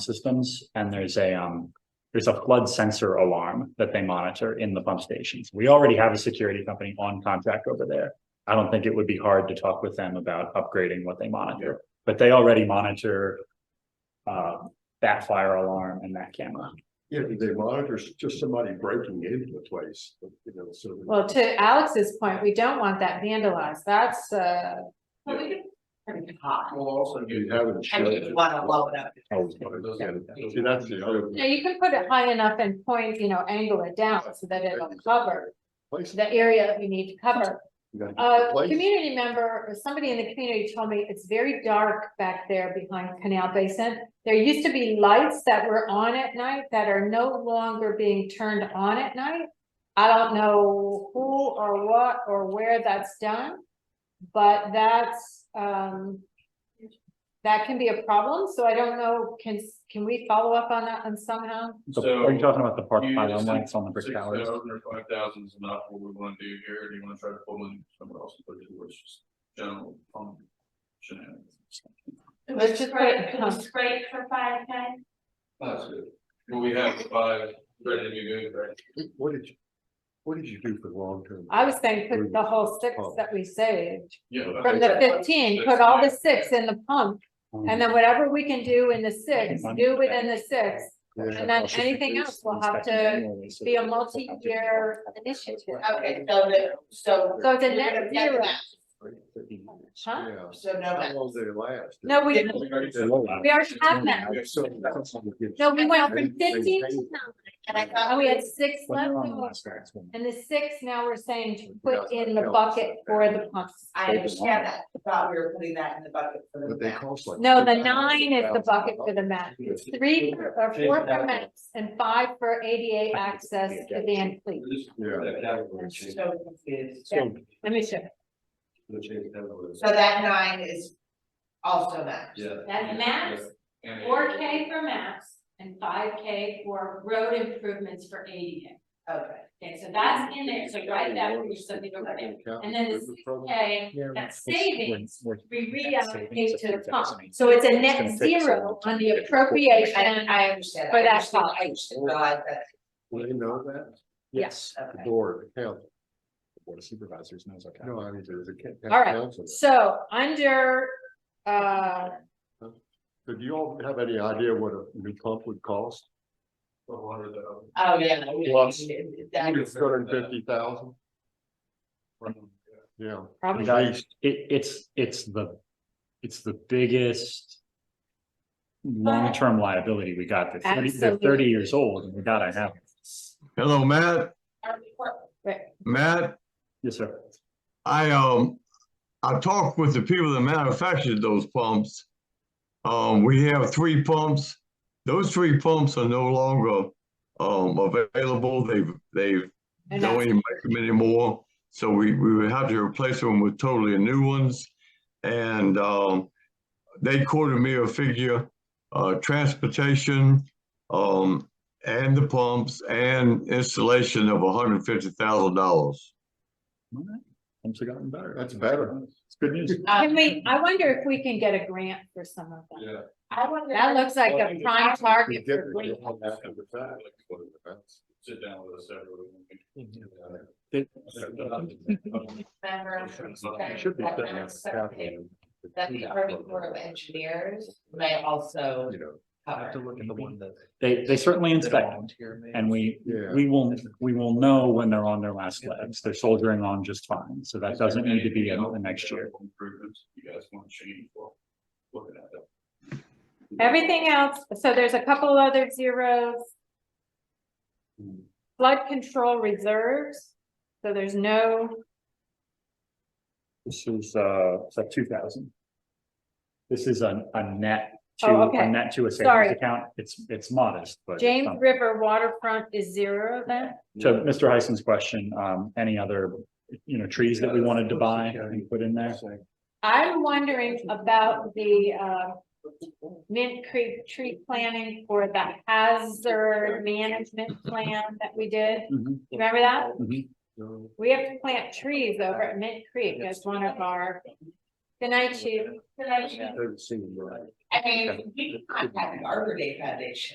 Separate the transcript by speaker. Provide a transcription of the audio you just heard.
Speaker 1: systems and there's a, um, there's a flood sensor alarm that they monitor in the pump stations. We already have a security company on contract over there. I don't think it would be hard to talk with them about upgrading what they monitor, but they already monitor uh, that fire alarm and that camera.
Speaker 2: Yeah, they monitor s- just somebody breaking into the place, you know, so.
Speaker 3: Well, to Alex's point, we don't want that vandalized, that's, uh.
Speaker 4: Well, we could turn it hot.
Speaker 2: Well, also you haven't.
Speaker 4: I mean, you wanna blow it up.
Speaker 2: Oh, See, that's the other
Speaker 3: Yeah, you can put it high enough and point, you know, angle it down so that it'll cover
Speaker 2: place.
Speaker 3: the area that we need to cover.
Speaker 2: You gotta keep
Speaker 3: A
Speaker 2: the place.
Speaker 3: community member or somebody in the community told me it's very dark back there behind Canal Basin. There used to be lights that were on at night that are no longer being turned on at night. I don't know who or what or where that's done, but that's, um, that can be a problem, so I don't know, can, can we follow up on that and somehow?
Speaker 1: So
Speaker 5: So-
Speaker 1: are you talking about the park
Speaker 5: You
Speaker 1: pylon
Speaker 5: just-
Speaker 1: lights on the brick
Speaker 5: Six
Speaker 1: towers?
Speaker 5: thousand or five thousand is not what we wanna do here, do you wanna try to pull in someone else to put it towards just general fund shenanigans?
Speaker 3: Let's just put it-
Speaker 4: It was great for five K.
Speaker 5: That's good, well, we have five ready to be good, right?
Speaker 2: What did you, what did you do for the long term?
Speaker 3: I was saying
Speaker 2: Mm.
Speaker 3: put the whole six that we saved
Speaker 5: Yeah.
Speaker 3: from the fifteen, put all the six in the pump. And then whatever we can do in the six, do within the six, and then anything else will have to be a multi-year initiative.
Speaker 4: Okay, so the, so.
Speaker 3: So it's a net zero. Huh?
Speaker 2: Yeah.
Speaker 4: So no
Speaker 2: How
Speaker 4: net.
Speaker 2: long did it last?
Speaker 3: No, we,
Speaker 5: We already
Speaker 2: They
Speaker 5: said-
Speaker 2: love
Speaker 3: we already have that.
Speaker 2: it. So that's how it gets-
Speaker 3: No, we went from fifteen to nine,
Speaker 4: And I
Speaker 3: and
Speaker 4: thought
Speaker 3: we had six
Speaker 1: When
Speaker 3: left.
Speaker 1: they're on the
Speaker 3: over.
Speaker 1: last grants, when-
Speaker 3: And the six now we're saying to put in the bucket for the pumps.
Speaker 4: I understand that, thought we were putting that in the bucket for the
Speaker 2: But they
Speaker 4: net.
Speaker 2: cost like.
Speaker 3: No, the nine is the bucket for the mats. It's three for- or four for mats and five for ADA access to the end fleet.
Speaker 2: Yeah.
Speaker 4: So confused.
Speaker 2: So,
Speaker 3: Let me show.
Speaker 4: So that nine is also that.
Speaker 5: Yeah.
Speaker 6: That's max,
Speaker 5: And-
Speaker 6: four K for maps and five K for road improvements for ADA.
Speaker 4: Okay.
Speaker 6: Okay, so that's in there, so write that, or something over there. And then the Okay, that savings,
Speaker 1: We're-
Speaker 6: we
Speaker 1: Savings
Speaker 6: reallocate
Speaker 1: of
Speaker 6: to the pump,
Speaker 1: 2008.
Speaker 6: so it's a
Speaker 1: It's gonna
Speaker 6: net
Speaker 1: take so
Speaker 6: zero
Speaker 1: long to
Speaker 6: on the
Speaker 1: get it.
Speaker 4: And
Speaker 6: appropriation.
Speaker 4: I understand.
Speaker 6: For that
Speaker 4: I
Speaker 6: cost.
Speaker 4: just realized that.
Speaker 2: Well, you know that?
Speaker 1: Yes.
Speaker 2: The
Speaker 4: Okay.
Speaker 2: board, the council.
Speaker 1: The Board of Supervisors knows, okay.
Speaker 2: No, I mean, there's a. ca-
Speaker 3: All right.
Speaker 2: council.
Speaker 3: So under, uh,
Speaker 2: So do you all have any idea what a new pump would cost?
Speaker 5: Four hundred thousand.
Speaker 4: Oh, yeah. we-
Speaker 2: Plus.
Speaker 4: that is-
Speaker 2: Two hundred and fifty thousand, yeah.
Speaker 3: Probably.
Speaker 2: At least,
Speaker 1: It, it's, it's the, it's the biggest long-term liability we got. They're thirty, they're thirty
Speaker 3: Absolutely.
Speaker 1: years old and we gotta have. it.
Speaker 7: Hello, Matt.
Speaker 4: Our report-
Speaker 7: Matt,
Speaker 1: Yes, sir.
Speaker 7: I, um, I talked with the people that manufactured those pumps. Um, we have three pumps. Those three pumps are no longer, um, available. They've, they've
Speaker 3: And
Speaker 7: don't even make them anymore. So we, we would have to replace them with totally new ones. And, um, they quoted me a figure, uh, transportation, um, and the pumps and installation of hundred and fifty thousand dollars.
Speaker 1: All right. Things have gotten better.
Speaker 2: That's better.
Speaker 1: It's good news.
Speaker 3: can we, I wonder if we can get a grant for some of them.
Speaker 5: Yeah.
Speaker 4: I wonder.
Speaker 3: That looks like a prime target
Speaker 2: Get
Speaker 3: for
Speaker 2: the
Speaker 3: grant.
Speaker 2: deal after the fact.
Speaker 5: Sit down with us everyone.
Speaker 1: It-
Speaker 4: Member of
Speaker 5: It
Speaker 2: Should be
Speaker 4: that
Speaker 2: done
Speaker 4: not
Speaker 2: as a
Speaker 4: separate,
Speaker 2: capital.
Speaker 4: That the Army Corps of Engineers may also
Speaker 2: You know,
Speaker 4: cover.
Speaker 1: They, they certainly inspect them, and we,
Speaker 2: Yeah.
Speaker 1: we will, we will know when they're on their last legs. They're soldiering on just fine. So that doesn't need to be in the next year.
Speaker 5: Improvements you guys wanna change, well, looking at that.
Speaker 3: Everything else, so there's a couple other zeros. Flood control reserves, so there's no,
Speaker 1: This is, uh, it's like two thousand. This is a, a net
Speaker 3: Oh,
Speaker 1: to, a
Speaker 3: okay.
Speaker 1: net to a
Speaker 3: Sorry.
Speaker 1: savings account. It's, it's modest, but. it's
Speaker 3: James
Speaker 1: something.
Speaker 3: River waterfront is zero then?
Speaker 1: To Mr. Heisen's question, um, any other, you know, trees that we wanted to buy and put in there?
Speaker 3: I'm wondering about the, uh, Mint Creek tree planting for the hazard management plan that we did.
Speaker 1: Mhm,
Speaker 3: Remember that?
Speaker 1: mhm.
Speaker 2: So,
Speaker 3: We have to plant trees over at Mint Creek as one of our, good night, chief.
Speaker 2: I haven't seen it, right.
Speaker 4: I mean, we can contact Arbor Day Foundation.